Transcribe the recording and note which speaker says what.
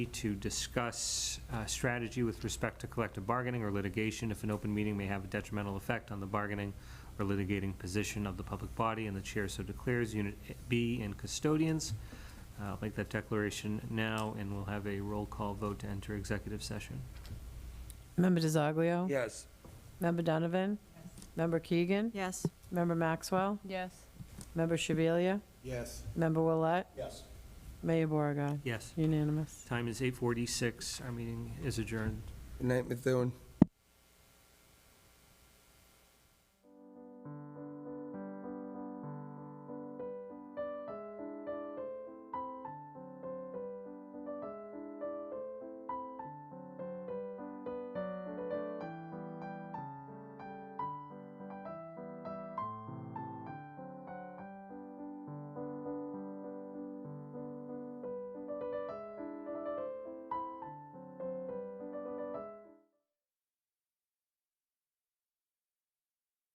Speaker 1: to discuss uh, strategy with respect to collective bargaining or litigation if an open meeting may have a detrimental effect on the bargaining or litigating position of the public body, and the chair so declares, Unit B and custodians. Uh, I'll make that declaration now, and we'll have a roll call vote to enter executive session.
Speaker 2: Member DiZoglio?
Speaker 3: Yes.
Speaker 2: Member Donovan? Member Keegan?
Speaker 4: Yes.
Speaker 2: Member Maxwell?
Speaker 4: Yes.
Speaker 2: Member Shabilia?
Speaker 3: Yes.
Speaker 2: Member Willett?
Speaker 3: Yes.
Speaker 2: Mayor Beauregard?
Speaker 1: Yes,
Speaker 2: Unanimous.
Speaker 1: time is 8:46. Our meeting is adjourned.
Speaker 3: Good night, Methuen.